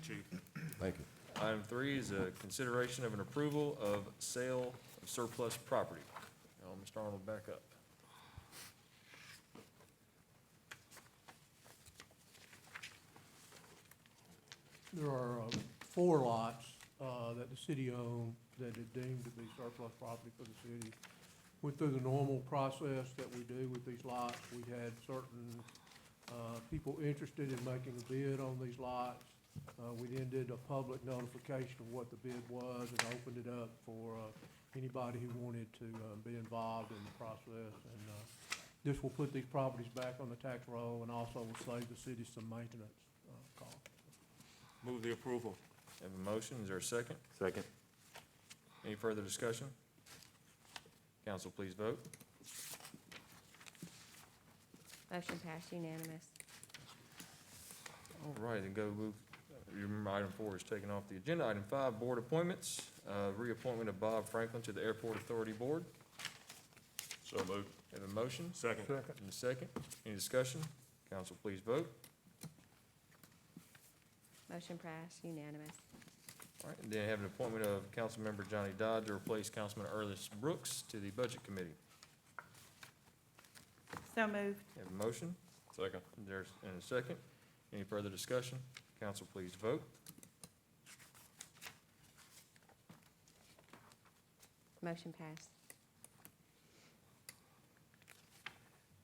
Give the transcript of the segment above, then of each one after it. Chief. Thank you. Item three is a consideration of an approval of sale of surplus property. Uh, Mr. Arnold, back up. There are uh, four lots uh, that the city owned that are deemed to be surplus property for the city. Went through the normal process that we do with these lots. We had certain uh, people interested in making a bid on these lots. Uh, We then did a public notification of what the bid was and opened it up for uh, anybody who wanted to uh, be involved in the process. And uh, this will put these properties back on the tax roll and also will save the city some maintenance uh, costs. Move the approval. Have a motion, is there a second? Second. Any further discussion? Council, please vote. Motion passed unanimous. All right, and go move, you remember item four is taken off the agenda. Item five, board appointments, Uh, reappointment of Bob Franklin to the Airport Authority Board. So moved. Have a motion Second. and a second. Any discussion? Council, please vote. Motion passed unanimous. All right, and then have an appointment of Councilmember Johnny Dodd to replace Councilman Ernest Brooks to the Budget Committee. So moved. Have a motion? Second. There's, and a second. Any further discussion? Council, please vote. Motion passed.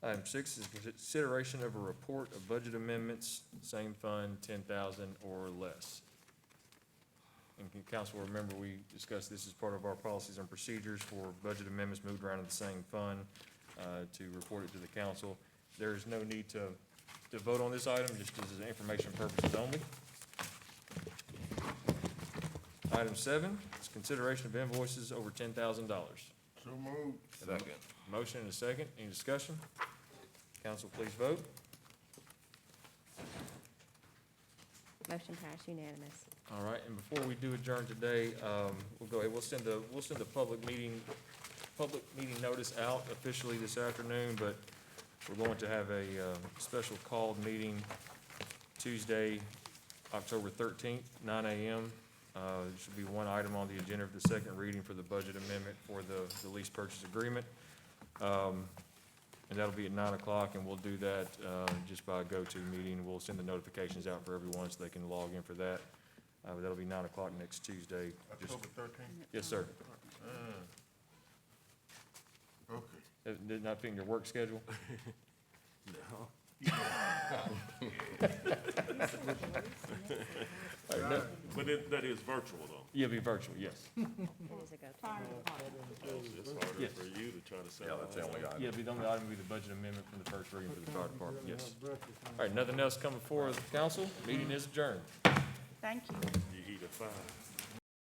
Item six is consideration of a report of budget amendments, same fund, ten thousand or less. And can council remember, we discussed this as part of our policies and procedures for budget amendments moved around in the same fund, uh, to report it to the council. There is no need to, to vote on this item, just as an information purposes only. Item seven is consideration of invoices over ten thousand dollars. So moved. Second. Motion and a second, any discussion? Council, please vote. Motion passed unanimous. All right, and before we do adjourn today, um, we'll go ahead, we'll send a, we'll send a public meeting, public meeting notice out officially this afternoon, but we're going to have a, um, special called meeting Tuesday, October thirteenth, nine AM. Uh, there should be one item on the agenda of the second reading for the budget amendment for the, the lease purchase agreement. Um, and that'll be at nine o'clock, and we'll do that, uh, just by a go-to meeting. We'll send the notifications out for everyone so they can log in for that. Uh, but that'll be nine o'clock next Tuesday. Just- thirteenth. Yes, sir. Okay. Uh, Did not fit in your work schedule? All right, no. But it, that is virtual though. You'll be virtual, yes. It is a go-to. Fire department. It's harder for you to try to sell. that's the only Yeah, be the only item will be the budget amendment from the first reading for the fire department, yes. All right, nothing else coming forward, council? Meeting is adjourned. Thank you. You eat a five.